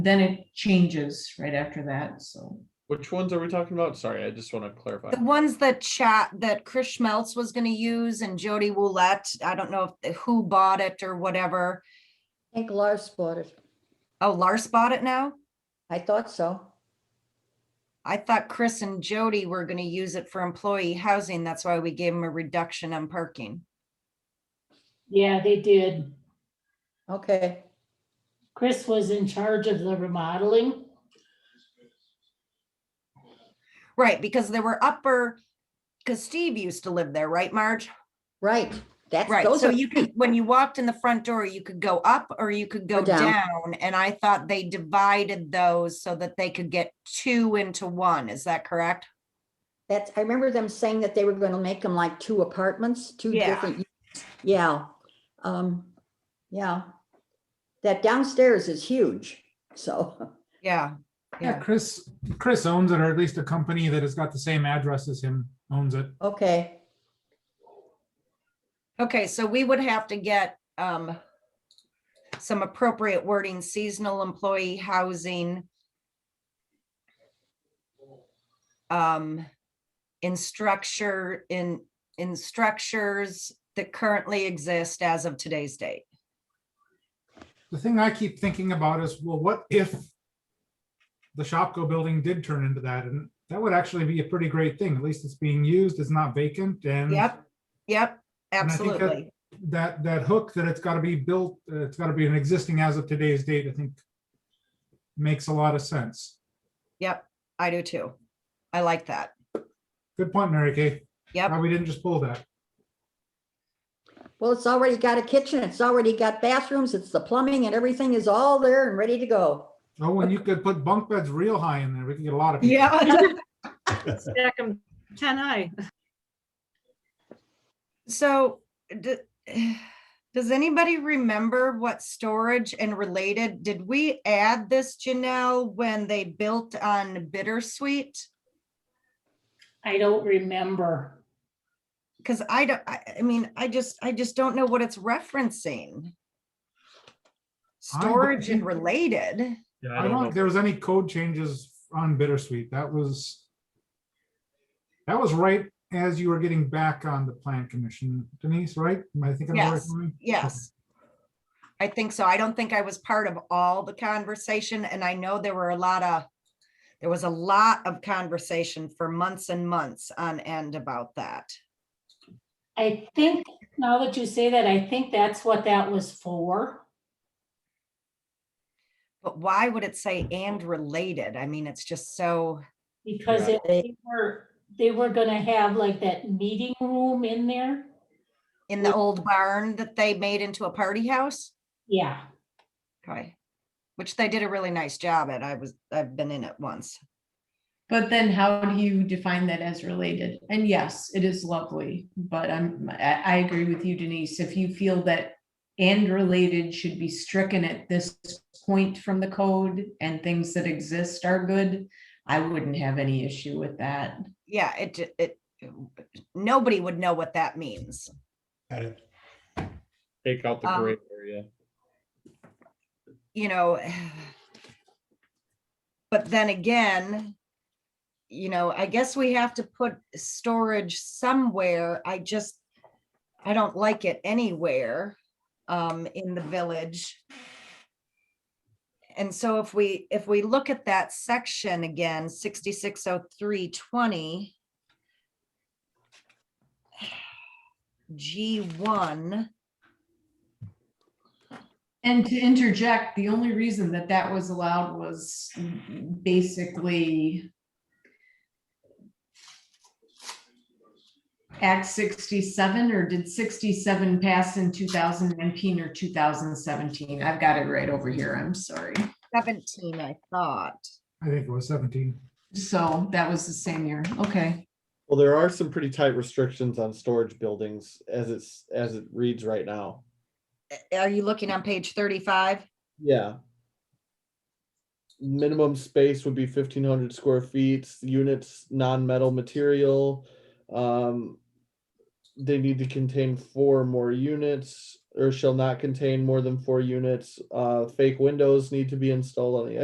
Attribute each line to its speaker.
Speaker 1: Then it changes right after that, so.
Speaker 2: Which ones are we talking about? Sorry, I just want to clarify.
Speaker 3: The ones that chat, that Chris Schmelz was gonna use and Jody Woolette, I don't know if who bought it or whatever.
Speaker 4: I think Lars bought it.
Speaker 3: Oh, Lars bought it now?
Speaker 4: I thought so.
Speaker 3: I thought Chris and Jody were gonna use it for employee housing. That's why we gave them a reduction on parking.
Speaker 5: Yeah, they did.
Speaker 4: Okay,
Speaker 5: Chris was in charge of the remodeling.
Speaker 3: Right, because there were upper, because Steve used to live there, right, Marge?
Speaker 4: right. That's,
Speaker 3: Right,
Speaker 4: those
Speaker 3: so
Speaker 4: are,
Speaker 3: you could, when you walked in the front door, you could go up or you could go
Speaker 4: down.
Speaker 3: down. And I thought they divided those so that they could get two into one. Is that correct?
Speaker 4: that's, I remember them saying that they were gonna make them like two apartments, two
Speaker 3: Yeah.
Speaker 4: different. units. Yeah, um, yeah. That downstairs is huge, so,
Speaker 3: Yeah,
Speaker 6: Yeah,
Speaker 3: yeah.
Speaker 6: Chris, Chris owns it, or at least a company that has got the same address as him owns it.
Speaker 4: okay,
Speaker 3: Okay, so we would have to get um some appropriate wording, seasonal employee housing. Um, in structure, in, in structures that currently exist as of today's date.
Speaker 6: The thing I keep thinking about is, well, what if the Shopko building did turn into that? And that would actually be a pretty great thing. At least it's being used, it's not vacant and
Speaker 3: Yep, yep,
Speaker 6: And I think that-
Speaker 3: absolutely.
Speaker 6: that, that hook that it's got to be built, uh, it's got to be an existing as of today's date, I think makes a lot of sense.
Speaker 3: Yep, I do too. I like that.
Speaker 6: Good point, Mary Kay.
Speaker 3: Yep.
Speaker 6: Why we didn't just pull that.
Speaker 4: well, it's already got a kitchen, it's already got bathrooms, it's the plumbing and everything is all there and ready to go.
Speaker 6: Oh, and you could put bunk beds real high in there. We could get a lot of. people.
Speaker 3: Yeah.
Speaker 7: Stack 'em ten high.
Speaker 3: So, d- does anybody remember what storage and related, did we add this, Janelle, when they built on Bittersweet?
Speaker 5: I don't remember.
Speaker 3: Because I don't, I, I mean, I just, I just don't know what it's referencing.
Speaker 6: I don't
Speaker 3: Storage and
Speaker 6: think-
Speaker 3: related,
Speaker 2: Yeah,
Speaker 6: I don't think there was any code changes on bittersweet. That was. That was right as you were getting back on the plan commission, Denise, right? Am I thinking? of the right
Speaker 3: Yes.
Speaker 6: one?
Speaker 3: yes. I think so. I don't think I was part of all the conversation and I know there were a lot of, there was a lot of conversation for months and months on end about that.
Speaker 5: I think, now that you say that, I think that's what that was for.
Speaker 3: But why would it say and related? I mean, it's just so,
Speaker 5: Because
Speaker 2: Yeah.
Speaker 5: it- they were, they were gonna have like that meeting room in there.
Speaker 3: in the old barn that they made into a party house.
Speaker 5: Yeah,
Speaker 3: Okay. Which they did a really nice job at. I was, I've been in it once.
Speaker 1: But then how do you define that as related? And yes, it is lovely, but I'm, I, I agree with you Denise. If you feel that and related should be stricken at this point from the code and things that exist are good, I wouldn't have any issue with that.
Speaker 3: Yeah, it, ju- it, nobody would know what that means.
Speaker 2: Take out the
Speaker 3: Um,
Speaker 2: gray area.
Speaker 3: you know, but then again, you know, I guess we have to put storage somewhere. I just, I don't like it anywhere um, in the village. And so if we, if we look at that section again, sixty-six oh three twenty, G one.
Speaker 1: And to interject, the only reason that that was allowed was basically Act sixty-seven, or did sixty-seven pass in two thousand nineteen or two thousand seventeen? I've got it right over here, I'm sorry.
Speaker 3: 17, I thought.
Speaker 6: I think it was seventeen.
Speaker 1: So that was the same year, okay.
Speaker 2: Well, there are some pretty tight restrictions on storage buildings as it's, as it reads right now.
Speaker 3: Are you looking on page 35?
Speaker 2: Yeah. Minimum space would be fifteen hundred square feet, units, non-metal material. Um, they need to contain four more units or shall not contain more than four units. Uh, fake windows need to be installed on the